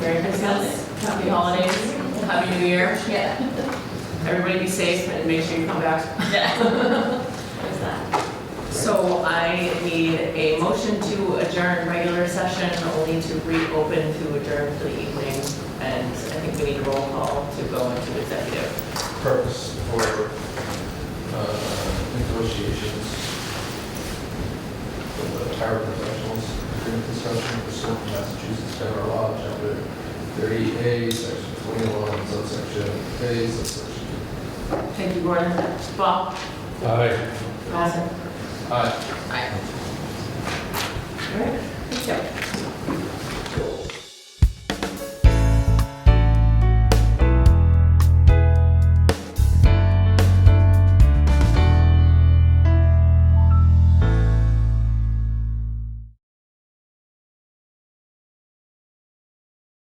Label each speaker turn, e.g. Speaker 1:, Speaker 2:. Speaker 1: Happy New Year.
Speaker 2: Yeah.
Speaker 1: Everybody be safe and make sure you come back.
Speaker 2: There's that.
Speaker 1: So I need a motion to adjourn regular session, only to reopen to adjourn for the evening. And I think we need a roll call to go into executive.
Speaker 3: purpose for uh, negotiations with the tower professionals during construction pursuant to Massachusetts federal law, chapter 30A, section 21, subsection A, subsection.
Speaker 1: Thank you, Gordon. Bob?
Speaker 3: Aye.
Speaker 1: Allison?
Speaker 3: Aye.
Speaker 1: Aye. All right, thank you.